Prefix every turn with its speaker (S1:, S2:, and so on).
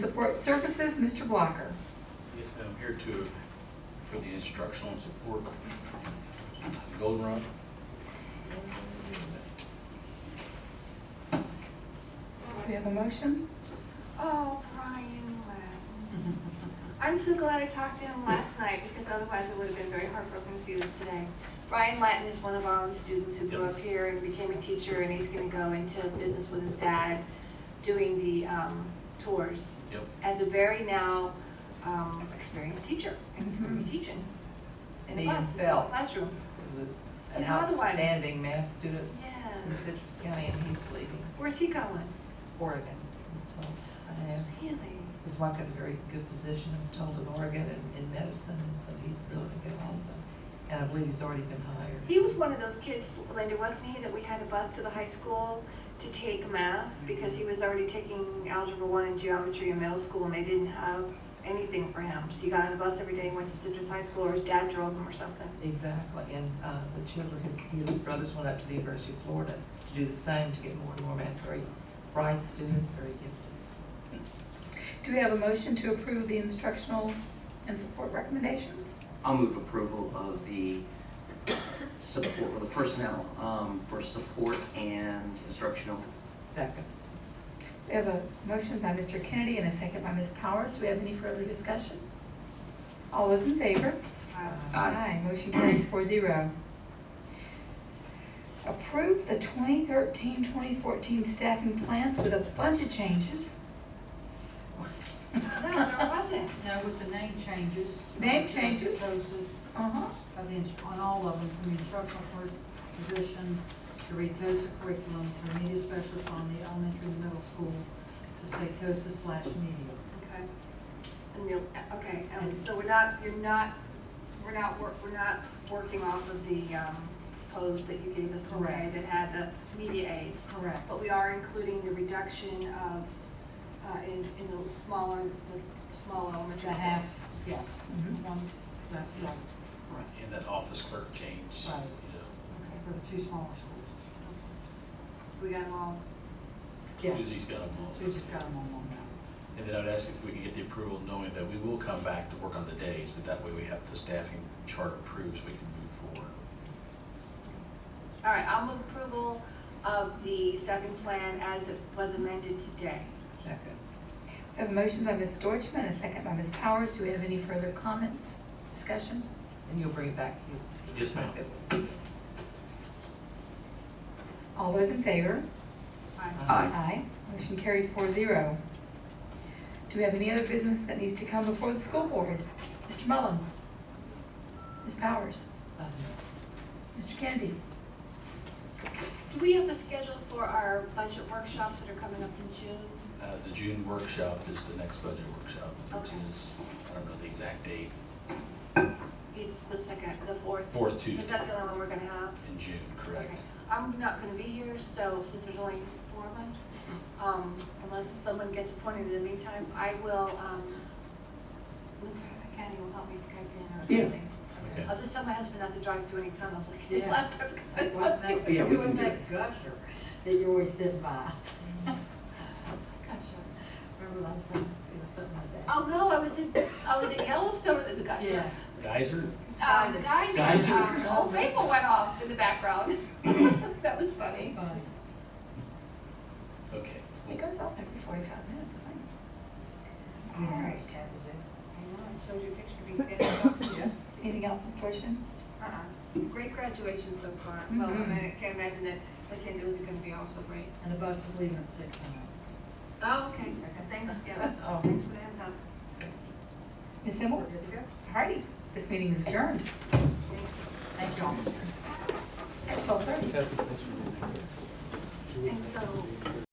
S1: Support Services, Mr. Blocker.
S2: Yes, ma'am, here to, for the instructional support, Golden Run.
S1: Do we have a motion?
S3: Oh, Brian Webb. I'm so glad I talked to him last night because otherwise I would have been very heartbroken if he was today. Brian Latin is one of our own students who grew up here and became a teacher and he's going to go into business with his dad doing the um, tours
S2: Yep.
S3: as a very now um, experienced teacher and he's gonna be teaching in a
S4: Me
S3: class,
S4: and
S3: in his
S4: Phil.
S3: classroom.
S4: He was an
S3: It's another one.
S4: outstanding math student
S3: Yeah.
S4: in Citrus County, and he's leaving
S3: Where's he going?
S4: Oregon, I was told. I asked,
S3: Really?
S4: his wife got a very good position, I was told, in Oregon in, in medicine, and so he's really good also. And I believe he's already been hired.
S3: He was one of those kids, Linda, wasn't he, that we had a bus to the high school to take math because he was already taking Algebra 1 and Geometry in middle school and they didn't have anything for him. So he got on a bus every day and went to Citrus High School or his dad drove him or something.
S4: Exactly, and, uh, the children, his, he and his brothers went up to the University of Florida to do the same, to get more and more math, very bright students, very gifted.
S1: Do we have a motion to approve the instructional and support recommendations?
S5: I'll move approval of the support, or the personnel um, for support and instructional.
S4: Second.
S1: We have a motion by Mr. Kennedy and a second by Ms. Powers. Do we have any further discussion? All those in favor?
S4: Uh,
S5: Aye.
S1: Motion carries four zero. Approve the 2013-2014 staffing plans with a bunch of changes.
S3: No, there wasn't.
S6: No, with the name changes.
S1: Name changes?
S6: Those is,
S1: Uh-huh.
S6: of the ins- on all of them, from instructional first position to read COSA curriculum to media specialist on the elementary and middle school to say COSA slash media.
S3: Okay. And you'll, okay, and so we're not, you're not, we're not, wor- we're not working off of the um, post that you gave us today
S6: Correct.
S3: that had the media aids.
S6: Correct.
S3: But we are including the reduction of, uh, in, in the smaller, the small elementary.
S6: To have, yes,
S1: Mhm.
S6: one, that, yeah, correct,
S2: And that office clerk change. you
S6: Right.
S2: know.
S6: for the two smaller schools.
S3: We got them all.
S6: Yes,
S2: Susie's got them all.
S6: Susie's got them on one now.
S2: And then I'd ask if we can get the approval, knowing that we will come back to work on the days, but that way we have the staffing chart approved, so we can move forward.
S3: All right, I'll move approval of the staffing plan as it was amended today.
S4: Second.
S1: We have a motion by Ms. Deutschman, a second by Ms. Powers. Do we have any further comments, discussion?
S4: And you'll bring it back to
S2: Yes, ma'am.
S1: All those in favor?
S3: Fine.
S5: Aye.
S1: Aye. Motion carries four zero. Do we have any other business that needs to come before the school board? Mr. Mullin? Ms. Powers?
S4: Uh,
S1: Mr. Kennedy?
S3: Do we have a schedule for our budget workshops that are coming up in June?
S2: Uh, the June workshop is the next budget workshop, which
S3: Okay.
S2: is, I don't know the exact date,
S3: It's the second, the fourth.
S2: fourth
S3: Is
S2: Tuesday
S3: that the only one we're gonna have?
S2: in June, correct?
S3: Okay. I'm not gonna be here, so since there's only four of us, um, unless someone gets appointed in the meantime, I will, um, Mr. Kenny will help me Skype in or
S5: Yeah.
S3: something.
S2: Okay.
S3: I'll just tell my husband not to drive through any tunnels like he did
S6: Yeah.
S3: last time. 'cause I
S6: It wasn't
S3: wasn't-
S6: that,
S5: Yeah,
S6: it
S5: we can
S6: wasn't
S5: do
S6: that gusher that you always sit by. Gusher, remember last time, it was something like that.
S3: Oh, no, I was in, I was in Yellowstone at the
S6: Yeah.
S3: geyser.
S2: Geyser?
S3: Uh, the geyser,
S2: Geyser.
S3: um, Old Faithful went off in the background. That was funny.
S6: Funny.
S2: Okay.
S1: It goes off every forty-five minutes, I think.
S6: um,
S1: All right.
S3: I know, I showed you a picture of me standing up.
S1: Anything else, Ms. Deutschman?
S3: Uh-uh. Great graduation so far. Well, I mean, I can't imagine that Mackenzie was gonna be also great.
S6: And the bus is leaving at six tonight.
S3: Oh, okay, thanks, yeah,
S4: Oh.
S3: thanks for the heads up.
S1: Ms. Himmel?
S6: Good to go.
S1: Hardy? This meeting is adjourned
S6: Thank you all.
S1: at twelve thirty.
S3: And so,